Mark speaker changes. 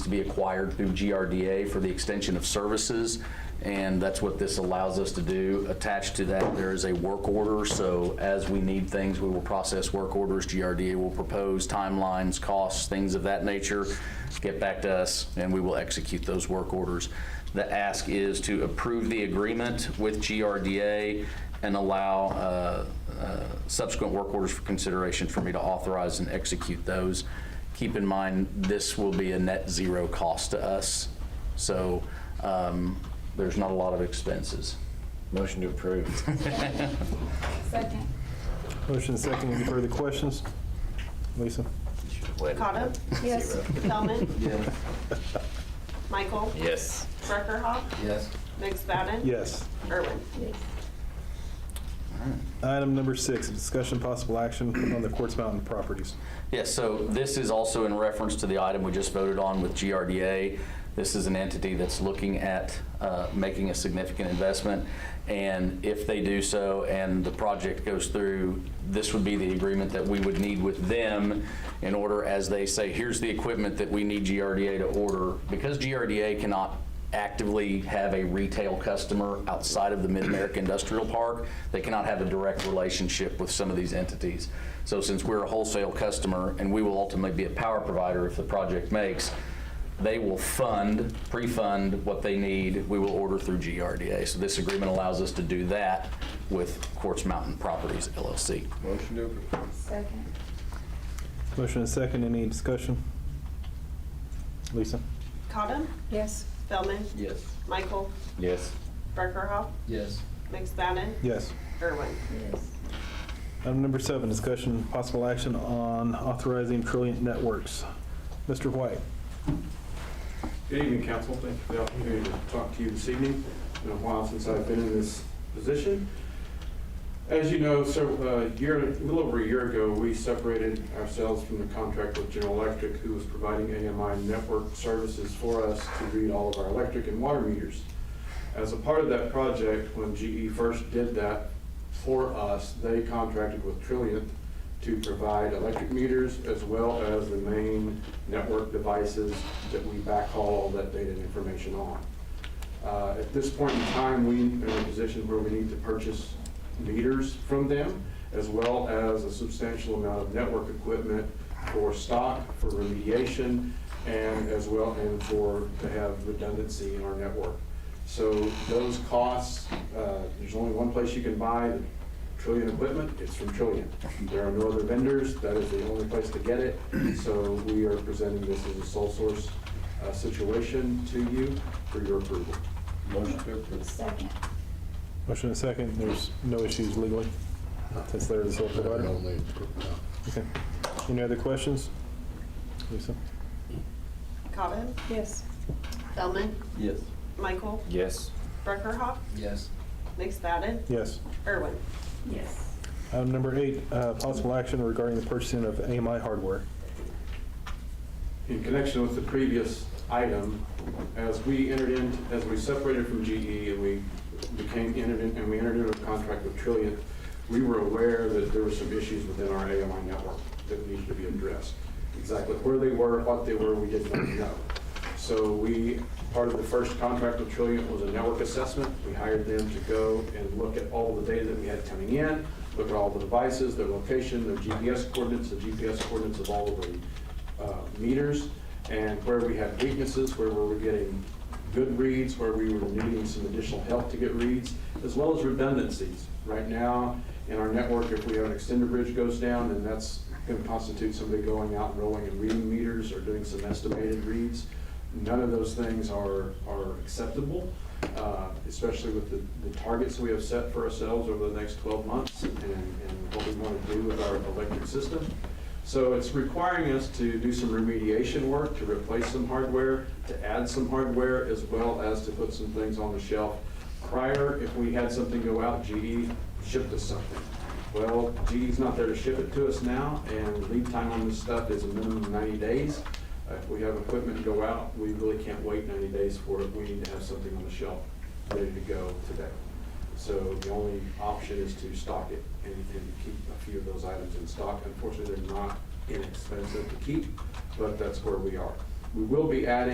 Speaker 1: be acquired through GRDA for the extension of services, and that's what this allows us to do. Attached to that, there is a work order, so as we need things, we will process work orders. GRDA will propose timelines, costs, things of that nature, get back to us, and we will execute those work orders. The ask is to approve the agreement with GRDA and allow uh, uh, subsequent work orders for consideration for me to authorize and execute those. Keep in mind, this will be a net zero cost to us, so um, there's not a lot of expenses.
Speaker 2: Motion to approve.
Speaker 3: Second.
Speaker 4: Motion second, any further questions? Lisa?
Speaker 5: Cotto?
Speaker 3: Yes.
Speaker 5: Feldman? Michael?
Speaker 2: Yes.
Speaker 5: Breckerhoff?
Speaker 2: Yes.
Speaker 5: McSpadden?
Speaker 4: Yes.
Speaker 5: Irwin?
Speaker 4: Item number six, discussion possible action on the Quartz Mountain properties.
Speaker 1: Yes, so this is also in reference to the item we just voted on with GRDA. This is an entity that's looking at uh, making a significant investment, and if they do so and the project goes through, this would be the agreement that we would need with them in order, as they say, here's the equipment that we need GRDA to order. Because GRDA cannot actively have a retail customer outside of the Mid-America Industrial Park. They cannot have a direct relationship with some of these entities. So since we're a wholesale customer, and we will ultimately be a power provider if the project makes, they will fund, pre-fund what they need. We will order through GRDA. So this agreement allows us to do that with Quartz Mountain Properties LLC.
Speaker 2: Motion to approve.
Speaker 3: Second.
Speaker 4: Motion second, any discussion? Lisa?
Speaker 5: Cotto?
Speaker 3: Yes.
Speaker 5: Feldman?
Speaker 2: Yes.
Speaker 5: Michael?
Speaker 2: Yes.
Speaker 5: Breckerhoff?
Speaker 2: Yes.
Speaker 5: McSpadden?
Speaker 4: Yes.
Speaker 5: Irwin?
Speaker 3: Yes.
Speaker 4: Item number seven, discussion possible action on authorizing Trilliant Networks. Mr. White?
Speaker 6: Good evening, council. Thank you for the opportunity to talk to you this evening. It's been a while since I've been in this position. As you know, so a year, a little over a year ago, we separated ourselves from the contract with General Electric, who was providing AMI network services for us to read all of our electric and water meters. As a part of that project, when GE first did that for us, they contracted with Trilliant to provide electric meters as well as the main network devices that we backhaul all that data and information on. Uh, At this point in time, we are in a position where we need to purchase meters from them, as well as a substantial amount of network equipment for stock, for remediation, and as well, and for, to have redundancy in our network. So those costs, uh, there's only one place you can buy Trillion equipment, it's from Trillion. There are no other vendors, that is the only place to get it, so we are presenting this as a sole source uh, situation to you for your approval.
Speaker 2: Motion to approve.
Speaker 3: Second.
Speaker 4: Motion second, there's no issues legally, since they're the sole provider. Okay. Any other questions? Lisa?
Speaker 5: Cotto?
Speaker 3: Yes.
Speaker 5: Feldman?
Speaker 2: Yes.
Speaker 5: Michael?
Speaker 2: Yes.
Speaker 5: Breckerhoff?
Speaker 2: Yes.
Speaker 5: McSpadden?
Speaker 4: Yes.
Speaker 5: Irwin?
Speaker 3: Yes.
Speaker 4: Item number eight, uh, possible action regarding the purchasing of AMI hardware.
Speaker 6: in connection with the previous item, as we entered in, as we separated from GE and we became entered in, and we entered into a contract with Trilliant, we were aware that there were some issues within our AMI network that needed to be addressed. Exactly where they were, what they were, we did not know. So we, part of the first contract with Trilliant was a network assessment. We hired them to go and look at all the data that we had coming in, look at all the devices, their location, their GPS coordinates, the GPS coordinates of all of the uh, meters and where we had weaknesses, where we were getting good reads, where we were needing some additional help to get reads, as well as redundancies. Right now, in our network, if we have an extender bridge goes down, then that's going to constitute somebody going out and rolling and reading meters or doing some estimated reads. None of those things are, are acceptable, uh, especially with the, the targets we have set for ourselves over the next 12 months and, and what we want to do with our electric system. So it's requiring us to do some remediation work, to replace some hardware, to add some hardware, as well as to put some things on the shelf. Prior, if we had something go out, GE shipped us something. Well, GE's not there to ship it to us now, and lead time on this stuff is a minimum of 90 days. Uh, If we have equipment go out, we really can't wait 90 days for it. We need to have something on the shelf ready to go today. So the only option is to stock it and, and keep a few of those items in stock. Unfortunately, they're not inexpensive to keep, but that's where we are. We will be adding.